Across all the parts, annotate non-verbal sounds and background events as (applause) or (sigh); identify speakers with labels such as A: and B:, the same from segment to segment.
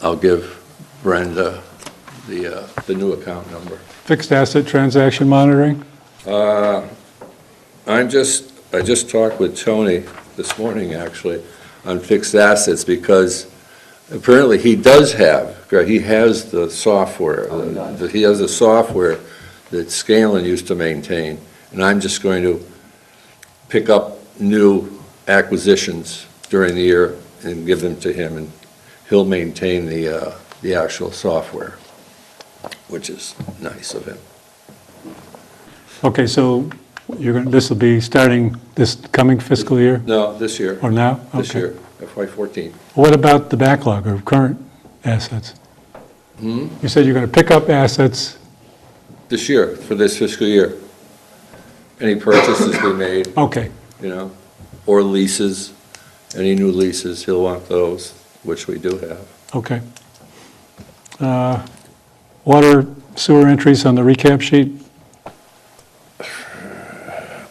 A: I'll give Brenda the, uh, the new account number.
B: Fixed asset transaction monitoring?
A: Uh, I'm just, I just talked with Tony this morning, actually, on fixed assets, because apparently he does have, he has the software. that He has the software that Scanlon used to maintain, and I'm just going to pick up new acquisitions during the year and give them to him, and he'll maintain the, uh, the actual software, which is nice of him.
B: Okay, so you're going, this will be starting this coming fiscal year
A: No, this year,
B: or now?
A: this
B: Okay.
A: year, FY fourteen.
B: What about the backlog of current assets?
A: Hmm?
B: You said you're going to pick up assets,
A: this year, for this fiscal year. Any purchases we made,
B: okay,
A: you know, or leases, any new leases, he'll want those, which we do have.
B: okay. Uh, Water sewer entries on the recap sheet?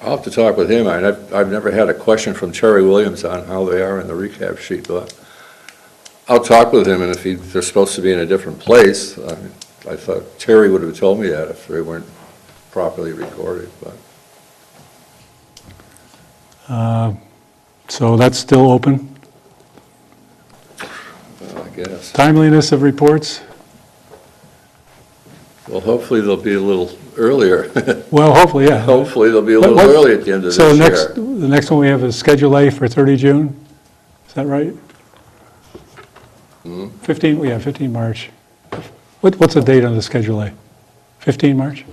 A: I'll have to talk with him, I- I've, I've never had a question from Terry Williams on how they are in the recap sheet, but I'll talk with him, and if he, they're supposed to be in a different place, I, I thought Terry would have told me that if they weren't properly recorded, but
B: So that's still open.
A: well, I guess.
B: Timeliness of reports?
A: Well, hopefully they'll be a little earlier, (laughs)
B: Well, hopefully, yeah.
A: hopefully they'll be a
B: What-
A: little
B: what-
A: early at the end of this year.
B: So next, the next one we have is Schedule A for 30 June, is that right?
A: Hmm?
B: 15, yeah, 15 March. What, what's the date on the Schedule A? 15 March?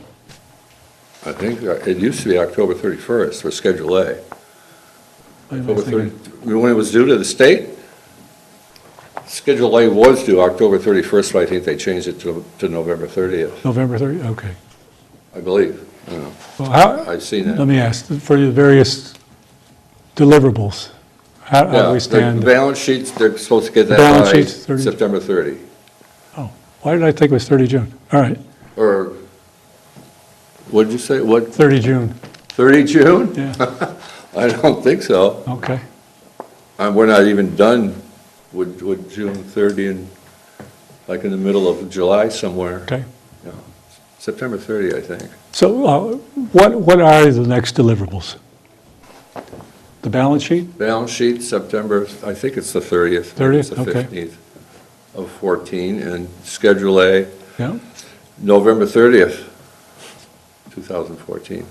A: I think uh, it used to be October 31st for Schedule A.
B: What am I
A: October
B: thinking?
A: 30 When it was due to the state, Schedule A was due October 31st, but I think they changed it to to November 30th,
B: November 30, okay.
A: I believe. I don't know.
B: Well, how,
A: I've seen
B: let
A: that.
B: me ask, for the various deliverables, how how
A: Yeah,
B: do we
A: the- The
B: stand?
A: balance sheets, they're supposed to get
B: The balance
A: that by
B: sheets, 30.
A: September 30,
B: Oh, why did I think it was 30 June? All right,
A: or, what did you say, what,
B: 30 June,
A: 30 June? (laughs)
B: yeah,
A: I don't think so.
B: okay.
A: Uh, We're not even done with, with June 30 and, like, in the middle of July somewhere.
B: Okay.
A: Yeah, September 30, I think.
B: So uh, what, what are the next deliverables? The balance sheet?
A: Balance sheet, September, I think it's the 30th. maybe it's
B: 30th, okay.
A: the 15th of 14, and Schedule A,
B: Yeah,
A: November 30th, 2014.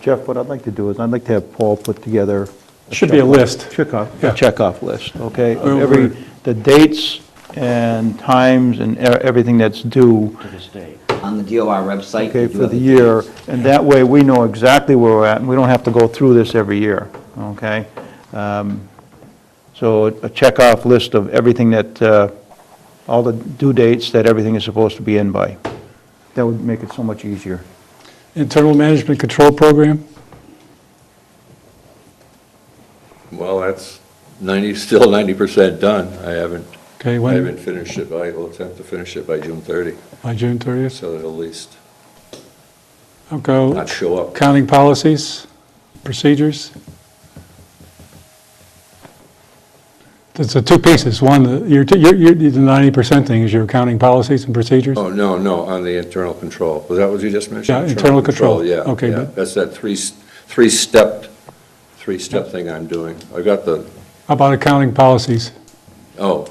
C: Jeff, what I'd like to do is, I'd like to have Paul put together.
B: Should be a
C: checklist-
B: list.
C: Checkoff,
B: Yeah. Oh,
C: a checkoff list, okay? of
B: We'll-
C: Every,
B: we'll-
C: the dates and times and e- everything that's due,
D: to this day. On the DOR website.
C: okay,
D: you do
C: for
D: have
C: the
D: it.
C: year, and that way we know exactly where we're at, and we don't have to go through this every year, okay? Um, So a checkoff list of everything that, uh, all the due dates that everything is supposed to be in by. That would make it so much easier.
B: Internal Management Control Program,
A: Well, that's 90, still 90% done. I haven't,
B: okay,
A: I
B: when,
A: haven't finished it, but I will attempt to finish it by June 30,
B: by June 30th?
A: so that at least
B: Okay,
A: not show up.
B: accounting policies, procedures? There's the two pieces, one, the- your, t- your, your- the 90% thing is your accounting policies and procedures?
A: Oh, no, no, on the internal control. Was that what you just mentioned?
B: Yeah, internal control.
A: Yeah,
B: Okay,
A: yeah.
B: but-
A: That's that three, three-step, three-step thing I'm doing. I got the,
B: How about accounting policies?
A: Oh,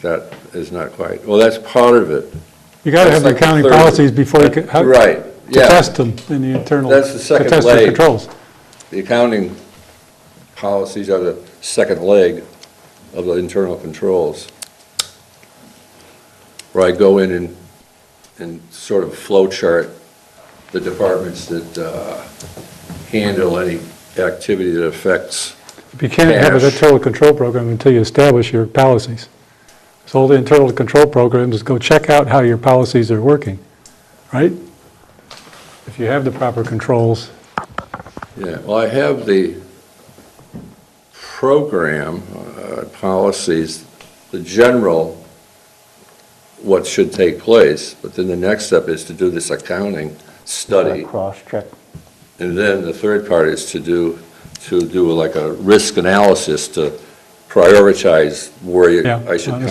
A: that is not quite, well, that's part of it.
B: You gotta
A: That's like
B: have the
A: the
B: accounting
A: third-
B: policies before you can. how-
A: Right,
B: To
A: yeah.
B: test them in the internal.
A: That's the second
B: To test the
A: leg.
B: controls.
A: The accounting policies are the second leg of the internal controls, where I go in and, and sort of flow chart the departments that uh, handle any activity that affects,
B: If You can't have an
A: Cash.
B: internal control program until you establish your policies. So all the internal control programs go check out how your policies are working, right? If you have the proper controls,
A: yeah, well, I have the program, uh, policies, the general, what should take place, but then the next step is to do this accounting study.
C: Cross-check.
A: And then the third part is to do, to do like a risk analysis to prioritize where you,
B: Yeah,
A: I should
B: I